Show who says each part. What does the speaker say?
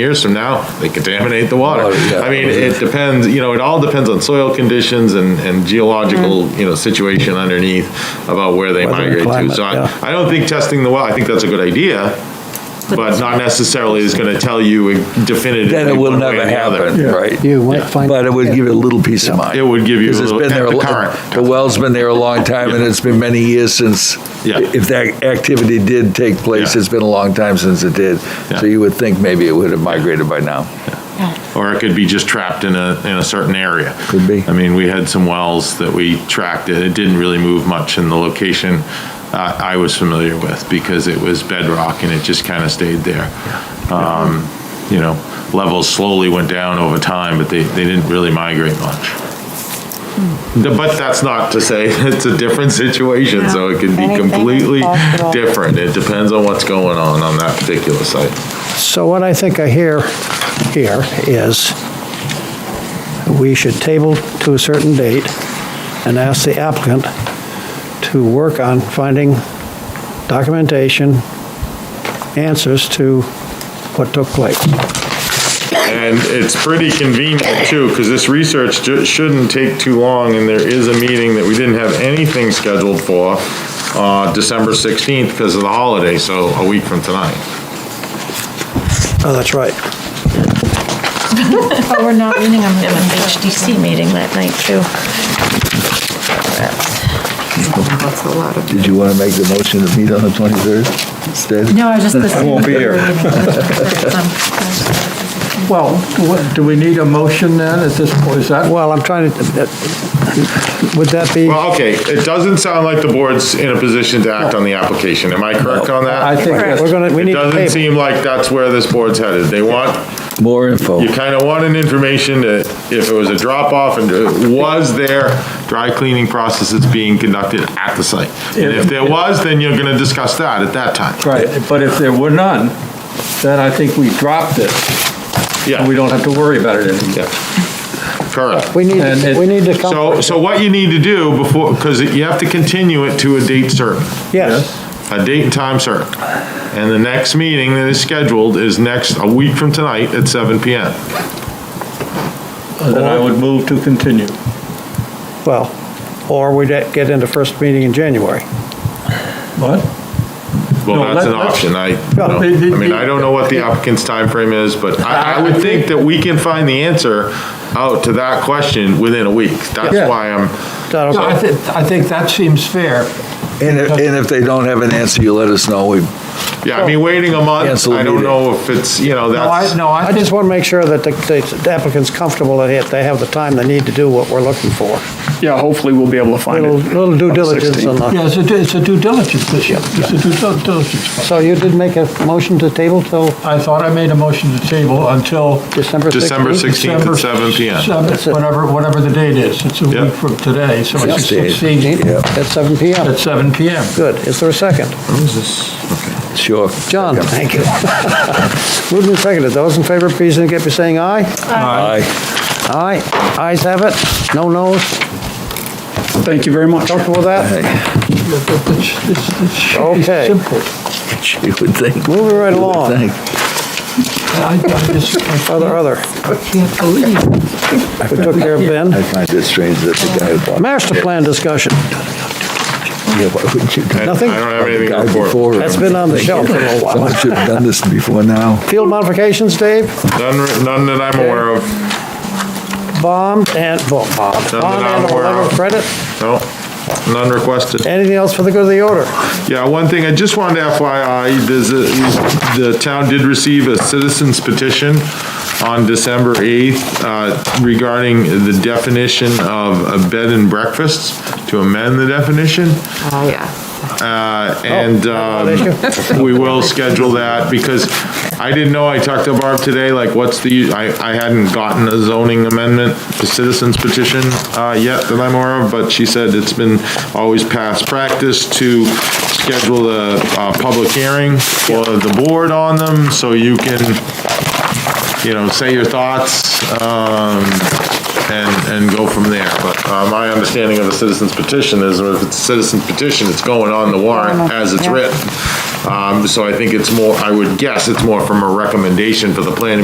Speaker 1: years from now, they contaminate the water.
Speaker 2: Water, yeah.
Speaker 1: I mean, it depends, you know, it all depends on soil conditions and, and geological, you know, situation underneath about where they
Speaker 3: Weather and
Speaker 1: migrate to.
Speaker 3: climate,
Speaker 1: So I,
Speaker 3: yeah.
Speaker 1: I don't think testing the well, I think that's a good idea, but not necessarily is gonna tell you definitively.
Speaker 2: Then it will
Speaker 1: one way or
Speaker 2: never
Speaker 1: the other.
Speaker 2: happen, right?
Speaker 3: You might find.
Speaker 2: But it would give you a little peace of mind.
Speaker 1: It would give you a
Speaker 2: Because it's
Speaker 1: little-
Speaker 2: been there,
Speaker 1: at
Speaker 2: a
Speaker 1: the
Speaker 2: lo-
Speaker 1: current.
Speaker 2: the well's been there a long time, and it's been many years since,
Speaker 1: Yeah.
Speaker 2: if that activity did take place,
Speaker 1: Yeah.
Speaker 2: it's been a long time since it did.
Speaker 1: Yeah.
Speaker 2: So you would think maybe it would have migrated by now.
Speaker 1: Or it could be just trapped in a, in a certain area.
Speaker 2: Could be.
Speaker 1: I mean, we had some wells that we tracked, and it didn't really move much in the location uh, I was familiar with, because it was bedrock and it just kind of stayed there. Um, You know, levels slowly went down over time, but they, they didn't really migrate much.
Speaker 2: Hmm.
Speaker 1: The- But that's not to say it's a different situation, so it can be
Speaker 4: Anything is
Speaker 1: completely
Speaker 4: possible.
Speaker 1: different. It depends on what's going on on that particular site.
Speaker 3: So what I think I hear here is we should table to a certain date and ask the applicant to work on finding documentation, answers to what took place.
Speaker 1: And it's pretty convenient too, because this research ju- shouldn't take too long, and there is a meeting that we didn't have anything scheduled for, uh, December 16th because of the holiday, so a week from tonight.
Speaker 3: Oh, that's right.
Speaker 4: Oh, we're not meeting on
Speaker 5: We have an
Speaker 4: the
Speaker 5: HDC meeting that night, too.
Speaker 6: That's a lot of.
Speaker 2: Did you want to make the motion to meet on the 23rd instead?
Speaker 4: No, I was just listening.
Speaker 2: won't be here.
Speaker 7: Well, what- do we need a motion then at this point? Is
Speaker 8: Uh,
Speaker 7: that,
Speaker 3: Well, I'm trying to, would that be,
Speaker 1: Well, okay, it doesn't sound like the board's in a position to act on the application. Am I correct on
Speaker 7: I
Speaker 1: that?
Speaker 7: think that's,
Speaker 3: we're going to, we
Speaker 1: It
Speaker 3: need to
Speaker 1: doesn't
Speaker 3: table.
Speaker 1: seem like that's where this board's headed. They want,
Speaker 2: More info.
Speaker 1: you kind of want an information that if it was a drop-off and it was there dry cleaning processes being conducted at the site? And if there was, then you're going to discuss that at that time.
Speaker 7: right, but if there were none, then I think we dropped it,
Speaker 1: Yeah.
Speaker 7: and we don't have to worry about it anymore.
Speaker 1: Yeah. Correct.
Speaker 3: We need,
Speaker 7: And it-
Speaker 3: we need to come,
Speaker 1: So, so what you need to do before, because you have to continue it to a date certain,
Speaker 3: yes,
Speaker 1: a date and time certain. And the next meeting that is scheduled is next, a week from tonight at 7 PM.
Speaker 7: Then I would move to continue.
Speaker 3: well, or we get into first meeting in January.
Speaker 7: What? No,
Speaker 1: Well, that's
Speaker 7: let-
Speaker 1: an
Speaker 7: let's-
Speaker 1: option. I, you
Speaker 3: Well,
Speaker 1: know,
Speaker 7: the- the-
Speaker 1: I mean, I don't know what the applicant's time frame is, but I, I would think that we can find the answer out to that question within a week. That's
Speaker 7: Yeah.
Speaker 1: why I'm,
Speaker 3: That'll-
Speaker 7: I think, I think that seems fair.
Speaker 2: And if, and if they don't have an answer, you let us know. We
Speaker 1: yeah, I mean, waiting a month,
Speaker 2: Cancel the
Speaker 1: I don't
Speaker 2: meeting.
Speaker 1: know if it's, you know,
Speaker 7: No, I,
Speaker 1: that's,
Speaker 7: no,
Speaker 3: I
Speaker 7: I
Speaker 3: just
Speaker 7: just,
Speaker 3: want to make sure that the- the applicant's comfortable that if they have the time they need to do what we're looking for.
Speaker 8: Yeah, hopefully we'll be able to find it.
Speaker 3: Little little due
Speaker 8: on the
Speaker 3: diligence
Speaker 8: 16th.
Speaker 3: on the,
Speaker 7: yeah, it's a due- it's a due diligence issue. It's a due dil- diligence.
Speaker 3: so you did make a motion to table till
Speaker 7: I thought I made a motion to table until
Speaker 3: December 16th?
Speaker 1: December 16th
Speaker 7: December
Speaker 1: at 7 PM.
Speaker 3: That's it.
Speaker 7: seven- Whatever, whatever the date is, it's a
Speaker 1: Yeah.
Speaker 7: week from today, so it's the 16th
Speaker 3: 16th, at seven PM.
Speaker 7: at seven PM.
Speaker 3: Good. Is there a second?
Speaker 2: sure.
Speaker 3: John, thank you. Moved and seconded. Those in favor, please indicate by saying aye.
Speaker 2: Aye.
Speaker 3: Aye. Ayes have it. No noes.
Speaker 8: Thank you very much.
Speaker 3: Comfortable with that?
Speaker 7: It's- it's- It should be
Speaker 3: Okay.
Speaker 7: simple.
Speaker 2: You would think.
Speaker 3: Moving right along.
Speaker 2: Thank-
Speaker 7: I I just, I
Speaker 3: Other, other.
Speaker 7: can't believe.
Speaker 3: We took care of
Speaker 2: I
Speaker 3: Ben.
Speaker 2: find it strange that the guy. who bought-
Speaker 3: Master plan discussion.
Speaker 2: Yeah, why wouldn't you?
Speaker 1: I I
Speaker 2: do-
Speaker 1: don't
Speaker 3: Nothing?
Speaker 1: have
Speaker 2: The
Speaker 1: anything
Speaker 2: guy
Speaker 1: to report.
Speaker 2: before him.
Speaker 3: That's been on the shelf for a little while.
Speaker 2: Someone should have done this before now.
Speaker 3: Field modifications, Dave?
Speaker 1: None, none that I'm aware of,
Speaker 3: Bond and, well, bond,
Speaker 1: that
Speaker 3: bond
Speaker 1: I'm
Speaker 3: and a
Speaker 1: aware
Speaker 3: letter of
Speaker 1: of.
Speaker 3: credit.
Speaker 1: no, none requested.
Speaker 3: Anything else for the good of the order?
Speaker 1: Yeah, one thing, I just wanted to FYI, there's a, the town did receive a citizen's petition on December 8th uh, regarding the definition of a bed and breakfasts, to amend the definition.
Speaker 6: Oh, yeah.
Speaker 1: Uh, And um, we will schedule that, because I didn't know, I talked to Barb today, like, what's the, I, I hadn't gotten a zoning amendment, to citizens petition uh, yet that I'm aware of, but she said it's been always past practice to schedule a, uh public hearing for the board on them, so you can, you know, say your thoughts, um, and, and go from there. But uh, my understanding of the citizen's petition is, if it's a citizen's petition, it's going on the warrant as it's written. Um, So I think it's more, I would guess it's more from a recommendation for the planning